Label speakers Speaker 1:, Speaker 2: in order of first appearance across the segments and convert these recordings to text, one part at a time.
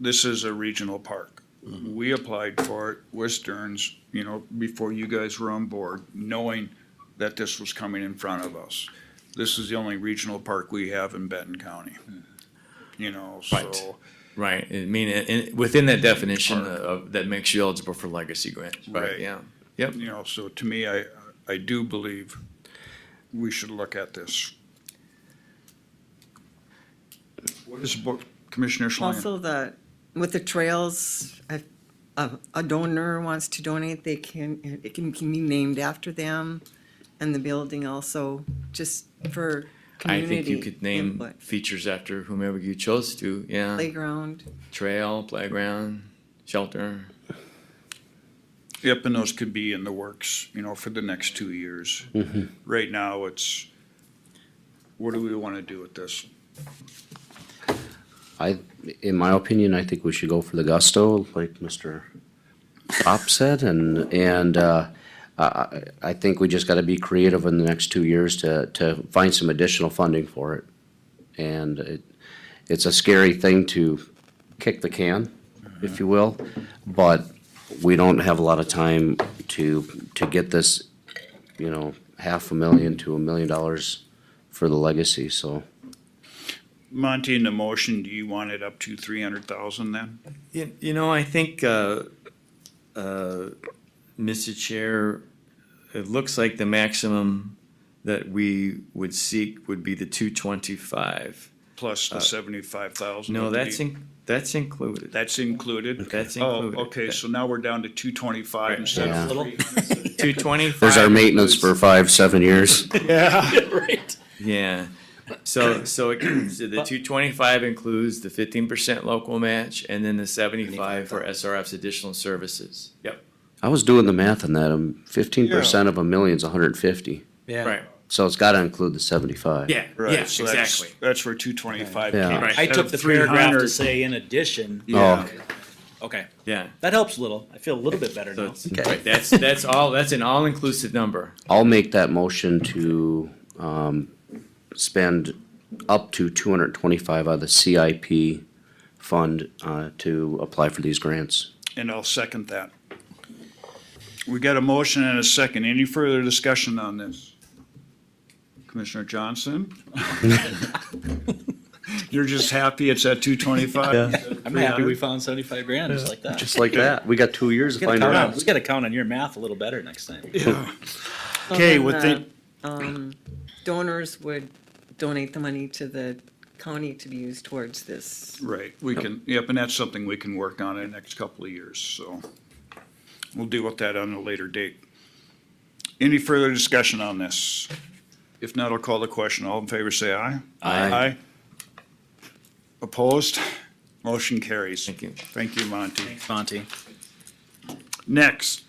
Speaker 1: this is a regional park. We applied for it, with Stearns, you know, before you guys were on board, knowing that this was coming in front of us. This is the only regional park we have in Benton County. You know,
Speaker 2: Right.
Speaker 1: so,
Speaker 2: Right. I mean, in, in- within that definition of, that makes you eligible for legacy grant.
Speaker 1: Right.
Speaker 2: Yeah. Yep.
Speaker 1: you know, so to me, I, I do believe we should look at this. What is, Bo- Commissioner Schlangen?
Speaker 3: Also the, with the trails, if a, a donor wants to donate, they can, it can, can be named after them. And the building also, just for
Speaker 2: I think
Speaker 3: community
Speaker 2: you could name
Speaker 3: input.
Speaker 2: features after whomever you chose to. Yeah.
Speaker 3: Playground,
Speaker 2: Trail, playground, shelter.
Speaker 1: Yep, and those could be in the works, you know, for the next two years.
Speaker 2: Mm-hmm.
Speaker 1: Right now, it's, what do we want to do with this?
Speaker 4: I, in my opinion, I think we should go for the gusto, like Mr. Pop said, and, and, uh, I- I, I think we just gotta be creative in the next two years to, to find some additional funding for it. And it, it's a scary thing to kick the can, if you will, but we don't have a lot of time to, to get this, you know, half a million to a million dollars for the legacy, so.
Speaker 1: Monty, in the motion, do you want it up to three hundred thousand then?
Speaker 2: You, you know, I think, uh, uh, Mr. Chair, it looks like the maximum that we would seek would be the two twenty-five.
Speaker 1: Plus the
Speaker 2: Uh,
Speaker 1: seventy-five thousand?
Speaker 2: No, that's in, that's included.
Speaker 1: That's included?
Speaker 2: That's
Speaker 1: Oh,
Speaker 2: included.
Speaker 1: okay, so now we're down to two twenty-five instead
Speaker 4: Yeah.
Speaker 1: of three hundred.
Speaker 2: Two twenty-five.
Speaker 4: There's our maintenance for five, seven years.
Speaker 2: Yeah, so, so it, so the two twenty-five includes the fifteen percent local match and then the seventy-five for SRF's additional services. Yep.
Speaker 4: I was doing the math on that. um, Fifteen percent of a million is hundred and fifty,
Speaker 2: Right,
Speaker 4: so it's got to include the seventy-five.
Speaker 2: yeah, yeah,
Speaker 1: Right, so that's-
Speaker 2: exactly.
Speaker 1: That's where two twenty-five
Speaker 4: Yeah.
Speaker 1: came.
Speaker 2: Right.
Speaker 5: I
Speaker 1: instead
Speaker 5: took
Speaker 1: of
Speaker 5: the paragraph
Speaker 1: 300.
Speaker 5: to say in addition.
Speaker 4: Oh,
Speaker 1: Yeah,
Speaker 5: Okay,
Speaker 2: Yeah,
Speaker 5: that helps a little. I feel a little bit better
Speaker 2: so
Speaker 5: now.
Speaker 2: it's, right, that's, that's all, that's an all-inclusive number.
Speaker 4: I'll make that motion to um, spend up to two hundred and twenty-five out of the CIP fund uh, to apply for these grants.
Speaker 1: and I'll second that. We got a motion and a second. Any further discussion on this? Commissioner Johnson? You're just happy it's at two twenty-five?
Speaker 5: I'm happy we found seventy-five grand, just like that.
Speaker 4: Just like that, we got two years to
Speaker 5: We gotta
Speaker 4: find
Speaker 5: count on-
Speaker 4: out.
Speaker 5: we gotta count on your math a little better next time.
Speaker 1: Okay,
Speaker 3: Well,
Speaker 1: with
Speaker 3: then,
Speaker 1: the,
Speaker 3: donors would donate the money to the county to be used towards this.
Speaker 1: right, we can, yep, and that's something we can work on in the next couple of years, so. We'll deal with that on a later date. Any further discussion on this? If not, I'll call the question. All in favor, say aye.
Speaker 2: Aye.
Speaker 1: Aye. Opposed? Motion carries.
Speaker 2: Thank you.
Speaker 1: Thank you, Monty.
Speaker 5: Monty.
Speaker 1: Next,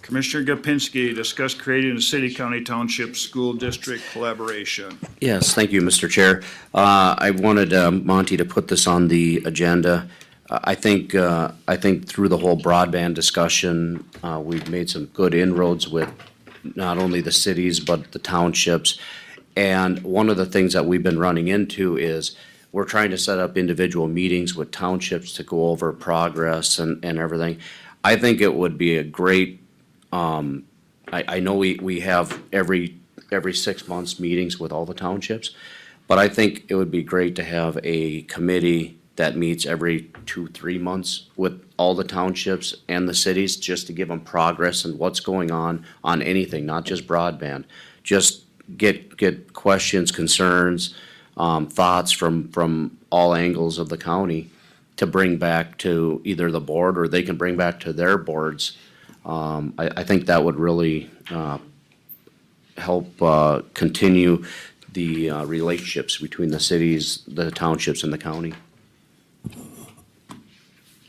Speaker 1: Commissioner Gopinski, discuss creating a city-county township school district collaboration.
Speaker 4: Yes, thank you, Mr. Chair. Uh, I wanted um, Monty to put this on the agenda. I I think, uh, I think through the whole broadband discussion, uh, we've made some good inroads with not only the cities, but the townships. And one of the things that we've been running into is we're trying to set up individual meetings with townships to go over progress and, and everything. I think it would be a great I, I know we, we have every, every six months meetings with all the townships, but I think it would be great to have a committee that meets every two, three months with all the townships and the cities, just to give them progress and what's going on, on anything, not just broadband. Just get, get questions, concerns, um, thoughts from, from all angles of the county to bring back to either the board or they can bring back to their boards. I, I think that would really uh, help uh, continue the uh, relationships between the cities, the townships, and the county.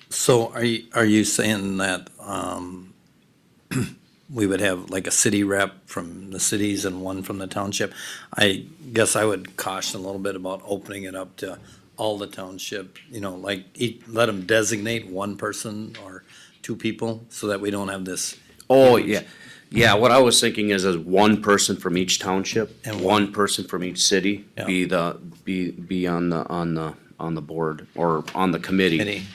Speaker 6: So are you, are you saying that, um, we would have like a city rep from the cities and one from the township? I guess I would caution a little bit about opening it up to all the township, you know, like, eat, let them designate one person or two people so that we don't have this.
Speaker 4: Oh, yeah, yeah, what I was thinking is, is one person from each township and
Speaker 6: And
Speaker 4: one person from each city
Speaker 6: Yeah.
Speaker 4: be the, be, be on the, on the,
Speaker 7: on the board or on the committee.
Speaker 4: Committee.